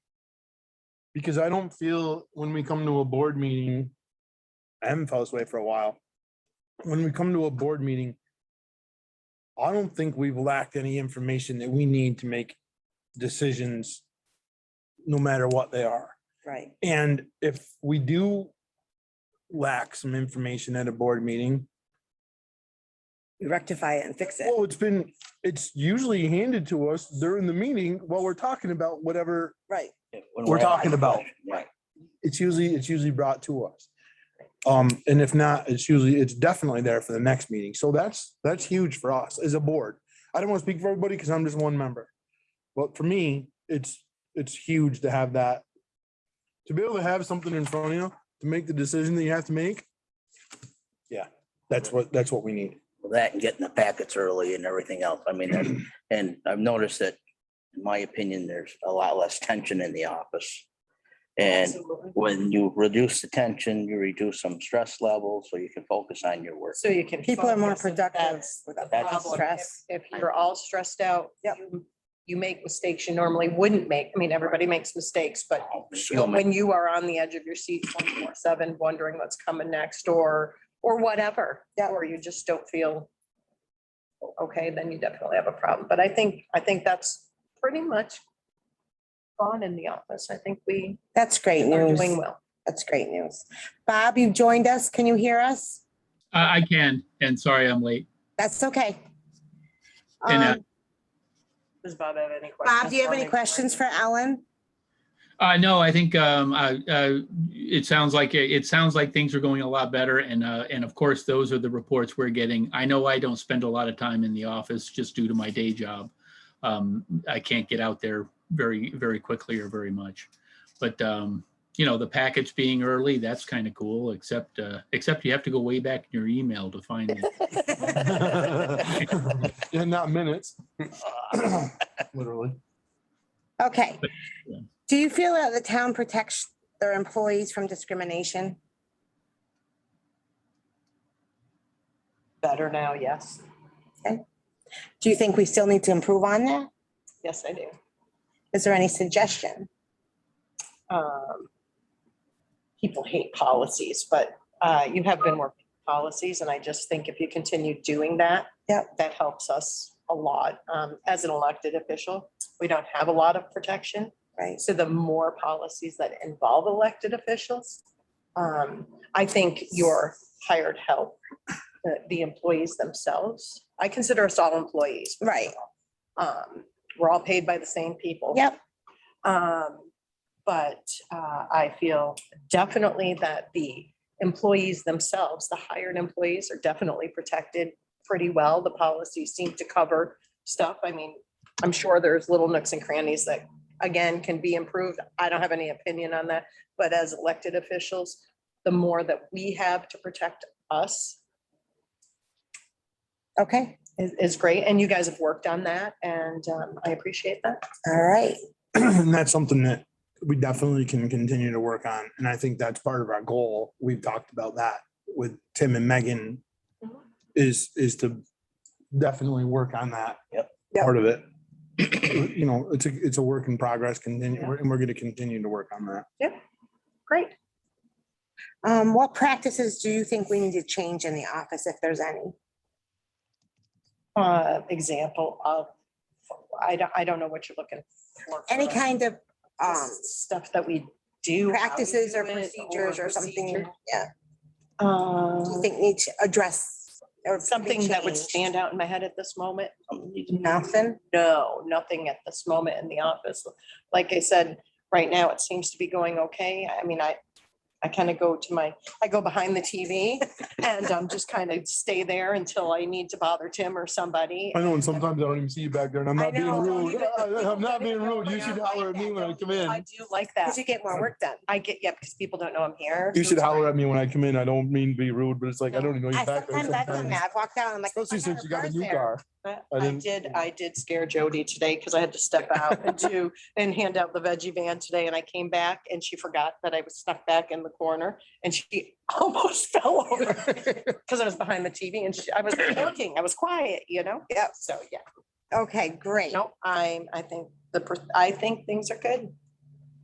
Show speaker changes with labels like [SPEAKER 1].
[SPEAKER 1] Because I don't feel when we come to a board meeting, I haven't felt this way for a while. When we come to a board meeting, I don't think we've lacked any information that we need to make decisions, no matter what they are.
[SPEAKER 2] Right.
[SPEAKER 1] And if we do lack some information at a board meeting,
[SPEAKER 2] We rectify it and fix it.
[SPEAKER 1] well, it's been, it's usually handed to us during the meeting while we're talking about whatever
[SPEAKER 2] Right.
[SPEAKER 3] when
[SPEAKER 1] We're
[SPEAKER 3] asking
[SPEAKER 1] talking about-
[SPEAKER 3] questions, Right.
[SPEAKER 1] it's usually, it's usually brought to us. Um, and if not, it's usually, it's definitely there for the next meeting. So that's, that's huge for us as a board. I don't want to speak for everybody because I'm just one member. But for me, it's, it's huge to have that. To be able to have something in front of you, to make the decision that you have to make. Yeah, that's what, that's what we need.
[SPEAKER 3] Well, That and getting the packets early and everything else. I mean, that's- and I've noticed that, in my opinion, there's a lot less tension in the office. And
[SPEAKER 4] Absolutely.
[SPEAKER 3] when you reduce the tension, you reduce some stress levels so you can focus on your work.
[SPEAKER 4] So you can.
[SPEAKER 2] People are more
[SPEAKER 4] focus.
[SPEAKER 2] productive
[SPEAKER 4] That's the
[SPEAKER 2] without
[SPEAKER 3] that's-
[SPEAKER 4] problem.
[SPEAKER 2] stress.
[SPEAKER 4] If if you're all stressed out.
[SPEAKER 2] Yep.
[SPEAKER 4] you- You make mistakes you normally wouldn't make. I mean, everybody makes mistakes, but
[SPEAKER 3] She'll make-
[SPEAKER 4] when you are on the edge of your seat twenty-four seven, wondering what's coming next or, or whatever.
[SPEAKER 2] Yeah.
[SPEAKER 4] Or you just don't feel okay, then you definitely have a problem. But I think, I think that's pretty much gone in the office. I think we
[SPEAKER 2] That's great
[SPEAKER 4] are
[SPEAKER 2] news.
[SPEAKER 4] doing well.
[SPEAKER 2] That's great news. Bob, you've joined us. Can you hear us?
[SPEAKER 5] I, I can, and sorry I'm late.
[SPEAKER 2] That's okay.
[SPEAKER 5] And, uh,
[SPEAKER 2] Um,
[SPEAKER 4] Does Bob have any questions?
[SPEAKER 2] Bob, do you have any questions for Ellen?
[SPEAKER 5] Uh, no, I think, um, uh, uh, it sounds like, it sounds like things are going a lot better. And, uh, and of course, those are the reports we're getting. I know I don't spend a lot of time in the office just due to my day job. Um, I can't get out there very, very quickly or very much. But, um, you know, the packets being early, that's kind of cool, except, uh, except you have to go way back in your email to find it.
[SPEAKER 1] Yeah, not minutes. Literally.
[SPEAKER 2] Okay.
[SPEAKER 5] Yeah.
[SPEAKER 2] Do you feel that the town protects their employees from discrimination?
[SPEAKER 4] Better now, yes.
[SPEAKER 2] Do you think we still need to improve on that?
[SPEAKER 4] Yes, I do.
[SPEAKER 2] Is there any suggestion?
[SPEAKER 4] um, people hate policies, but uh, you have been working policies, and I just think if you continue doing that,
[SPEAKER 2] Yep.
[SPEAKER 4] that helps us a lot. Um, As an elected official, we don't have a lot of protection,
[SPEAKER 2] Right.
[SPEAKER 4] so the more policies that involve elected officials, um, I think your hired help, the- the employees themselves, I consider us all employees.
[SPEAKER 2] Right.
[SPEAKER 4] Um, We're all paid by the same people.
[SPEAKER 2] Yep.
[SPEAKER 4] Um, but, uh, I feel definitely that the employees themselves, the hired employees are definitely protected pretty well. The policies seem to cover stuff. I mean, I'm sure there's little nooks and crannies that, again, can be improved. I don't have any opinion on that, but as elected officials, the more that we have to protect us
[SPEAKER 2] Okay.
[SPEAKER 4] is, is great. And you guys have worked on that and, um, I appreciate that.
[SPEAKER 2] All right.
[SPEAKER 1] And that's something that we definitely can continue to work on. And I think that's part of our goal. We've talked about that with Tim and Megan
[SPEAKER 4] Mhm.
[SPEAKER 1] is, is to definitely work on that.
[SPEAKER 3] Yep.
[SPEAKER 2] Yep.
[SPEAKER 1] Part of it. You know, it's a, it's a work in progress, continue, and we're going to continue to work on that.
[SPEAKER 4] Great.
[SPEAKER 2] Um, what practices do you think we need to change in the office, if there's any?
[SPEAKER 4] uh, example of, I don't, I don't know what you're looking for.
[SPEAKER 2] Any kind of, um,
[SPEAKER 4] Just Stuff that we do. how we
[SPEAKER 2] practices or
[SPEAKER 4] do it,
[SPEAKER 2] procedures or something,
[SPEAKER 4] procedure.
[SPEAKER 2] yeah, do you
[SPEAKER 4] Um,
[SPEAKER 2] think need to address? or be
[SPEAKER 4] Something that would
[SPEAKER 2] changed?
[SPEAKER 4] stand out in my head at this moment?
[SPEAKER 3] something needs to be-
[SPEAKER 2] Nothing?
[SPEAKER 4] No, nothing at this moment in the office. Like I said, right now, it seems to be going okay. I mean, I, I kind of go to my, I go behind the TV and I'm just kind of stay there until I need to bother Tim or somebody.
[SPEAKER 1] I know, and sometimes I don't even see you back there and I'm
[SPEAKER 2] I
[SPEAKER 1] not being
[SPEAKER 2] know, don't
[SPEAKER 1] rude.
[SPEAKER 4] even-
[SPEAKER 1] I- I'm not being rude. You should holler at me when I come
[SPEAKER 4] I
[SPEAKER 1] in.
[SPEAKER 4] do like that.
[SPEAKER 2] Because you get more work done.
[SPEAKER 4] I get, yeah, because people don't know I'm here.
[SPEAKER 1] You should holler at me when I come in. I don't mean to be rude, but it's like, I don't even know
[SPEAKER 2] I
[SPEAKER 1] you back there
[SPEAKER 2] sometimes I've done
[SPEAKER 1] sometimes.
[SPEAKER 2] that. I've walked out, I'm like.
[SPEAKER 1] Especially
[SPEAKER 2] "Oh my God,
[SPEAKER 1] since you got a
[SPEAKER 2] her
[SPEAKER 1] new
[SPEAKER 2] car's there."
[SPEAKER 1] car.
[SPEAKER 4] But
[SPEAKER 1] I
[SPEAKER 4] I
[SPEAKER 1] didn't-
[SPEAKER 4] did, I did scare Jody today because I had to step out and do, and hand out the veggie van today and I came back and she forgot that I was stuck back in the corner and she almost fell over because I was behind the TV and she- I was looking, I was quiet, you know? Yeah. So, yeah,
[SPEAKER 2] Okay, great.
[SPEAKER 4] no, I'm, I think the, per- I think things are good.